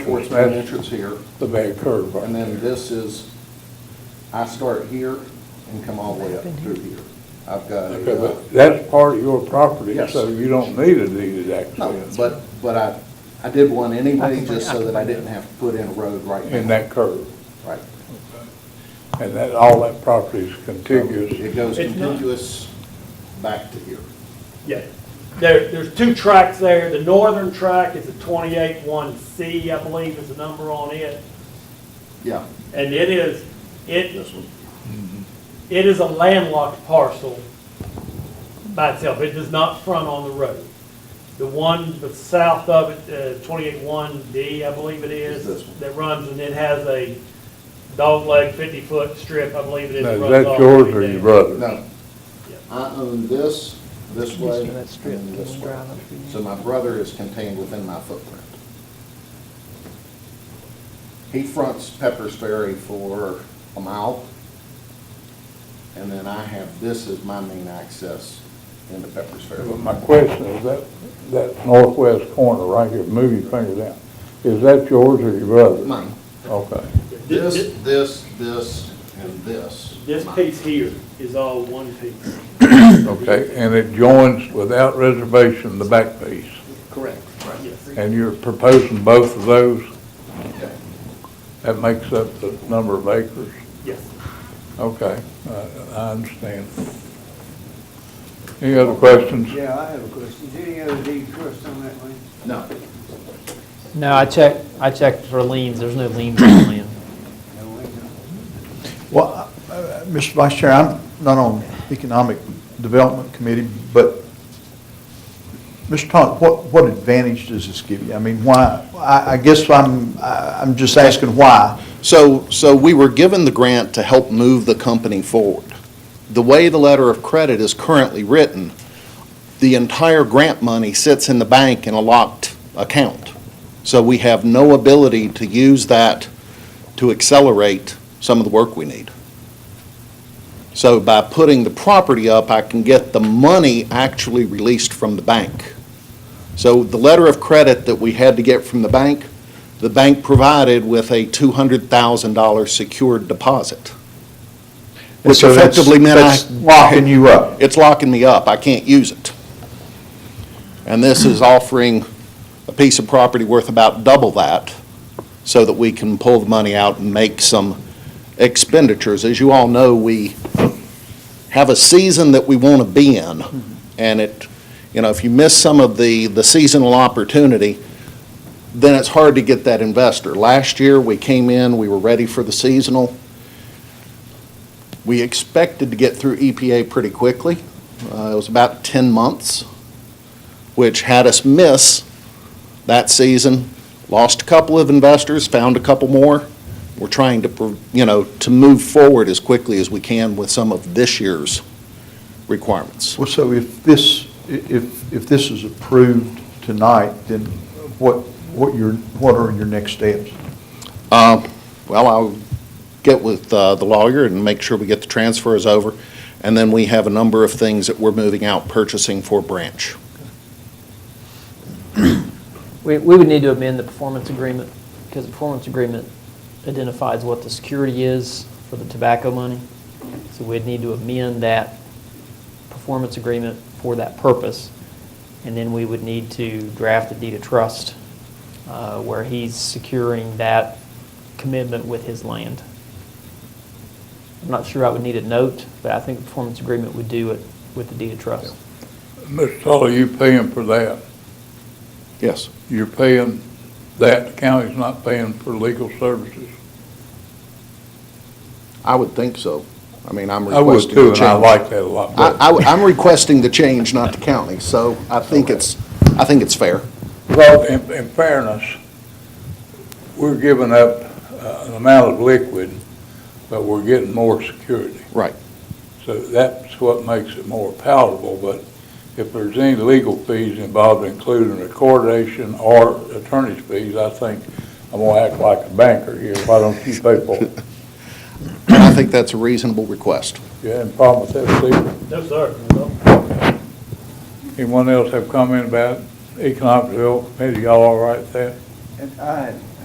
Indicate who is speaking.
Speaker 1: Portsmouth entrance here,
Speaker 2: the back curve.
Speaker 1: and then this is, I start here and come all the way up through here. I've got,
Speaker 2: Okay,
Speaker 1: a, uh,
Speaker 2: but that's part of your property,
Speaker 1: Yes.
Speaker 2: so you don't need a deeded
Speaker 1: no,
Speaker 2: access
Speaker 1: but, but I, I did one anyway, just so that I didn't have to put in a road right
Speaker 2: in
Speaker 1: now.
Speaker 2: that curve.
Speaker 1: Right.
Speaker 2: And that, all that property is contiguous.
Speaker 1: It goes
Speaker 3: It's not-
Speaker 1: contiguous back to here.
Speaker 3: Yeah, there, there's two tracks there. The northern track is a twenty-eight one C, I believe is the number on it.
Speaker 1: Yeah,
Speaker 3: And it is, it,
Speaker 1: this one.
Speaker 3: it is a landlocked parcel by itself. It does not front on the road. The one that's south of it, uh, twenty-eight one D, I believe it
Speaker 1: Is this
Speaker 3: is,
Speaker 1: one.
Speaker 3: that runs and it has a dogleg fifty-foot strip, I believe it is.
Speaker 2: Now,
Speaker 3: that
Speaker 2: is
Speaker 3: runs all
Speaker 2: that
Speaker 3: the way
Speaker 2: yours or
Speaker 3: down.
Speaker 2: your brother's?
Speaker 1: No. I own this, this way, and this way. So my brother is contained within my footprint. He fronts Pepper's Ferry for a mile. And then I have, this as my main access into Pepper's Ferry.
Speaker 2: But my question is that, that northwest corner right here, move your finger down, is that yours or your brother's?
Speaker 1: Mine.
Speaker 2: Okay.
Speaker 1: This, this, this, and this.
Speaker 3: This
Speaker 1: Mine.
Speaker 3: piece here is all one piece.
Speaker 2: Okay, and it joins without reservation the back piece,
Speaker 1: Correct. Right.
Speaker 3: Yes.
Speaker 2: and you're proposing both of those?
Speaker 1: Okay.
Speaker 2: That makes up the number of acres?
Speaker 3: Yes.
Speaker 2: Okay, I- I understand. Any other questions?
Speaker 4: Yeah, I have a question. Is any other deed trust on that land?
Speaker 1: No,
Speaker 5: No, I checked, I checked for liens, there's no liens on the land.
Speaker 4: No, ain't no.
Speaker 6: Well, uh, uh, Mr. Vice Chair, I'm not on Economic Development Committee, but, Mr. Thompson, what, what advantage does this give you? I mean, why, I, I guess I'm, I- I'm just asking why.
Speaker 7: So, so we were given the grant to help move the company forward. The way the letter of credit is currently written, the entire grant money sits in the bank in a locked account. So we have no ability to use that to accelerate some of the work we need. So by putting the property up, I can get the money actually released from the bank. So the letter of credit that we had to get from the bank the bank provided with a $200,000 secured deposit,
Speaker 6: And
Speaker 7: which
Speaker 6: so that's-
Speaker 7: effectively meant I...
Speaker 6: that's Locking you uh, up.
Speaker 7: It's locking me up. I can't use it. And this is offering a piece of property worth about double that so that we can pull the money out and make some expenditures. As you all know, we have a season that we want to be in, and it, you know, if you miss some of the, the seasonal opportunity, then it's hard to get that investor. Last year, we came in, we were ready for the seasonal. We expected to get through EPA pretty quickly. Uh, It was about 10 months, which had us miss that season. Lost a couple of investors, found a couple more. We're trying to, pro- you know, to move forward as quickly as we can with some of this year's requirements.
Speaker 6: Well, so if this, i- if, if this is approved tonight, then what, what your, what are your next steps?
Speaker 7: Uh, Well, I'll get with uh, the lawyer and make sure we get the transfers over, and then we have a number of things that we're moving out purchasing for Branch.
Speaker 5: We, we would need to amend the performance agreement, because the performance agreement identifies what the security is for the tobacco money. So we'd need to amend that performance agreement for that purpose. And then we would need to draft a deed of trust, uh, where he's securing that commitment with his land. I'm not sure I would need a note, but I think the performance agreement would do it with the deed of trust.
Speaker 2: Mr. Tully, you paying for that?
Speaker 7: Yes.
Speaker 2: You're paying, that The county's not paying for legal services?
Speaker 7: I would think so. I mean, I'm
Speaker 2: I would
Speaker 7: requesting
Speaker 2: too,
Speaker 7: the
Speaker 2: and
Speaker 7: change.
Speaker 2: I like that a lot better.
Speaker 7: am requesting the change, not the county, so I think it's, I think it's fair.
Speaker 2: Well, in, in fairness, we're giving up uh, an amount of liquid, but we're getting more security.
Speaker 7: Right.
Speaker 2: So that's what makes it more palatable, but if there's any legal fees involved, including recordation or attorney's fees, I think I'm gonna act like a banker here. Why don't you pay for it?
Speaker 7: And I think that's a reasonable request.
Speaker 2: You had a problem with that, Steve?
Speaker 3: No, sir.
Speaker 2: Anyone else have comment about economic development? Committee? Y'all all right there?
Speaker 4: And I had a